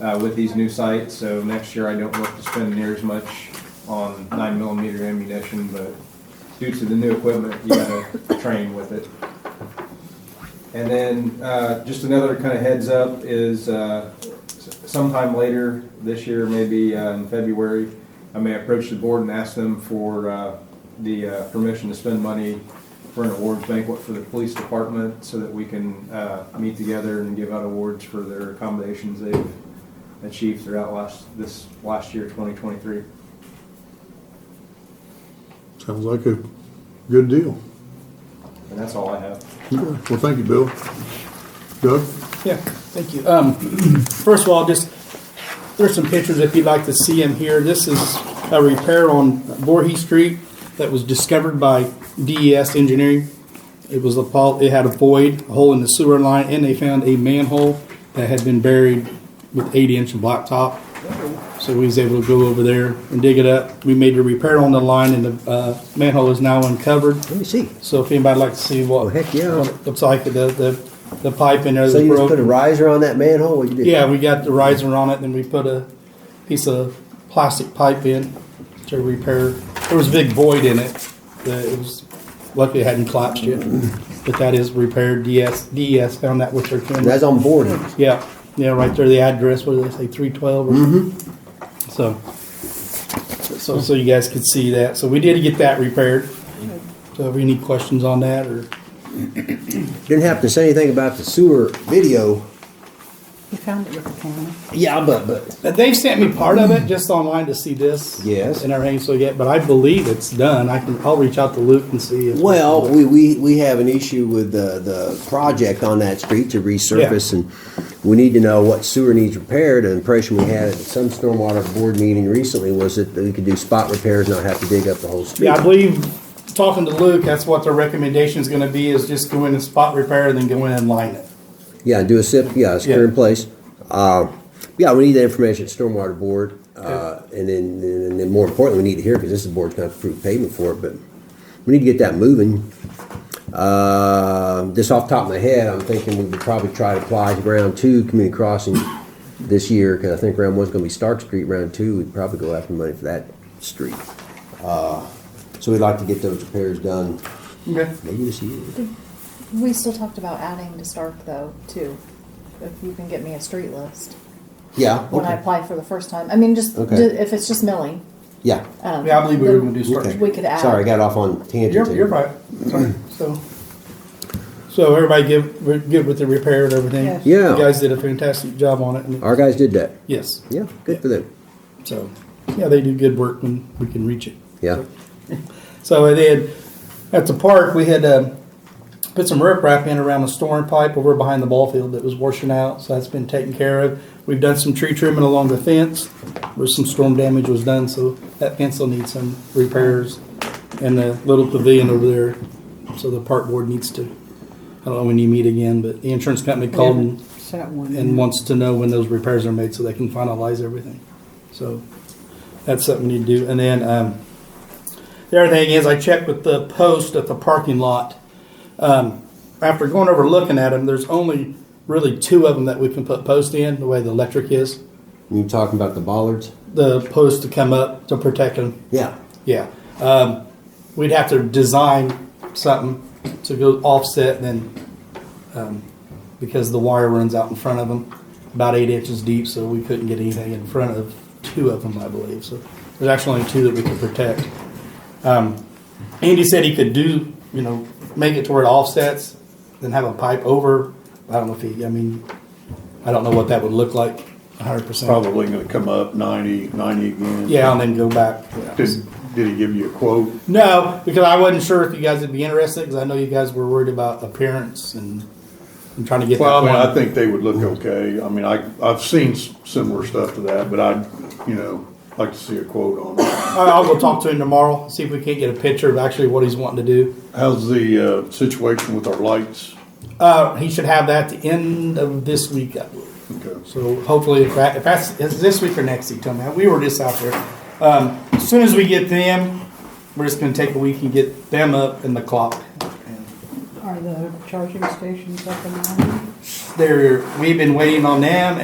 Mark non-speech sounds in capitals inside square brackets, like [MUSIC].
uh, with these new sights, so next year I don't look to spend near as much on nine millimeter ammunition, but due to the new equipment, you gotta train with it. And then, uh, just another kind of heads up is, uh, s- sometime later this year, maybe uh, in February, I may approach the board and ask them for, uh, the, uh, permission to spend money for an awards banquet for the police department so that we can, uh, meet together and give out awards for their accommodations they've achieved throughout last, this last year, twenty twenty-three. Sounds like a good deal. And that's all I have. Well, thank you, Bill. Doug? Yeah, thank you. Um, [CLEARS THROAT] first of all, just, there's some pictures if you'd like to see them here. This is a repair on Voorhees Street that was discovered by DES Engineering. It was a, pol- it had a void, a hole in the sewer line, and they found a manhole that had been buried with eighty inch of blacktop. So we was able to go over there and dig it up. We made a repair on the line and the, uh, manhole is now uncovered. Let me see. So if anybody'd like to see what. Oh, heck yeah. what it Looks like the, the, the pipe in there. So that's you just broke. put a riser on that manhole? What you did? Yeah, we got the riser on it, then we put a piece of plastic pipe in to repair. There was a big void in it. that It was luckily it hadn't collapsed yet, but that is repaired. DS DES E found that with their And cameras. That's on board. Yeah, yeah, right there. The address where they say three twelve. Mm-hmm. So, so so you guys could see that. So we did get that repaired. So if you any questions on that or Didn't happen to say anything about the sewer video. You found it with the camera. Yeah, but, but. Now, They've sent me part of it just online to see this. Yes. And everything, so yeah, but I believe it's done. I can, I'll reach out to Luke and see if. Well, we, we, we have an issue with the, the project on that street to resurface and we need to know what sewer needs repaired. An impression we had at some stormwater board meeting recently was that we could do spot repairs, not have to dig up the whole street. Yeah, I believe, talking to Luke, that's what their recommendation is gonna be, is just go in and spot repair and then go in and line it. Yeah, do a SIP, yeah, secure in Yeah. place. Uh, Yeah, we need that information at Stormwater Board, uh, and then, and then more importantly, we need to hear, because this is the board's gonna approve payment for it, but we need to get that moving. Uh, Just off the top of my head, I'm thinking we would probably try to apply to round two, community crossing this year, because I think round one's gonna be Stark Street, round two, we'd probably go after money for that street. Uh, So we'd like to get those repairs done, Okay. maybe this year. We still talked about adding to Stark though, too. If you can get me a street list Yeah, when I okay, apply for the first time. I mean, just, Okay. ju- if it's just milling. yeah. um, Yeah, I believe we were gonna do then Stark Okay. We could add. Sorry, I got off on tangent. You're, there. you're right. Sorry. So, so everybody give, we're good with the repair and everything? Yeah. Yeah. You guys did a fantastic job on it. and- Our guys did that. Yes, Yeah, good for them. so, yeah, they do good work when we can reach it. Yeah. So they had, at the park, we had um, put some riprap in around the storm pipe over behind the ball field that was washing out, so that's been taken care of. We've done some tree trimming along the fence, where some storm damage was done, so that fence will need some repairs. And the little pavilion over there, so the park board needs to, I don't know when you meet again, but the insurance company called and, Set one. and wants to know when those repairs are made so they can finalize everything. So that's something you do. And then um, the other thing is, I checked with the post at the parking lot. Um, after going over looking at them, there's only really two of them that we can put post in the way the electric is. You talking about the bollards? The post to come up to protect them. Yeah. Yeah. Um, we'd have to design something to go offset then um, because the wire runs out in front of them about eight inches deep, so we couldn't get anything in front of two of them, I believe. So there's actually only two that we could protect. Um, Andy said he could do, you know, make it to where it offsets, then have a pipe over. I don't know if he, I mean, I don't know what that would look like 100%. probably gonna come up 90, 90 again. Yeah, and then go back. Did, did he give you a quote? No, because I wasn't sure if you guys would be interested, because I know you guys were worried about appearance and, and trying to get. Well, I that mean, I down. think they would look okay. I mean, I, I've seen s- similar stuff to that, but I'd, you know, like to see a quote on it. All right, I'll go talk to him tomorrow, see if we can't get a picture of actually what he's wanting to do. How's the, uh, situation with our lights? Uh, he should have that at the end of this week, I believe. Okay. So hopefully, if, that, if that's is this week or next week, tell me. We were just out there. Um, as soon as we get them, we're just going to take a week and get them up in the clock. Are the charging stations up and running? They're, we've been waiting on them,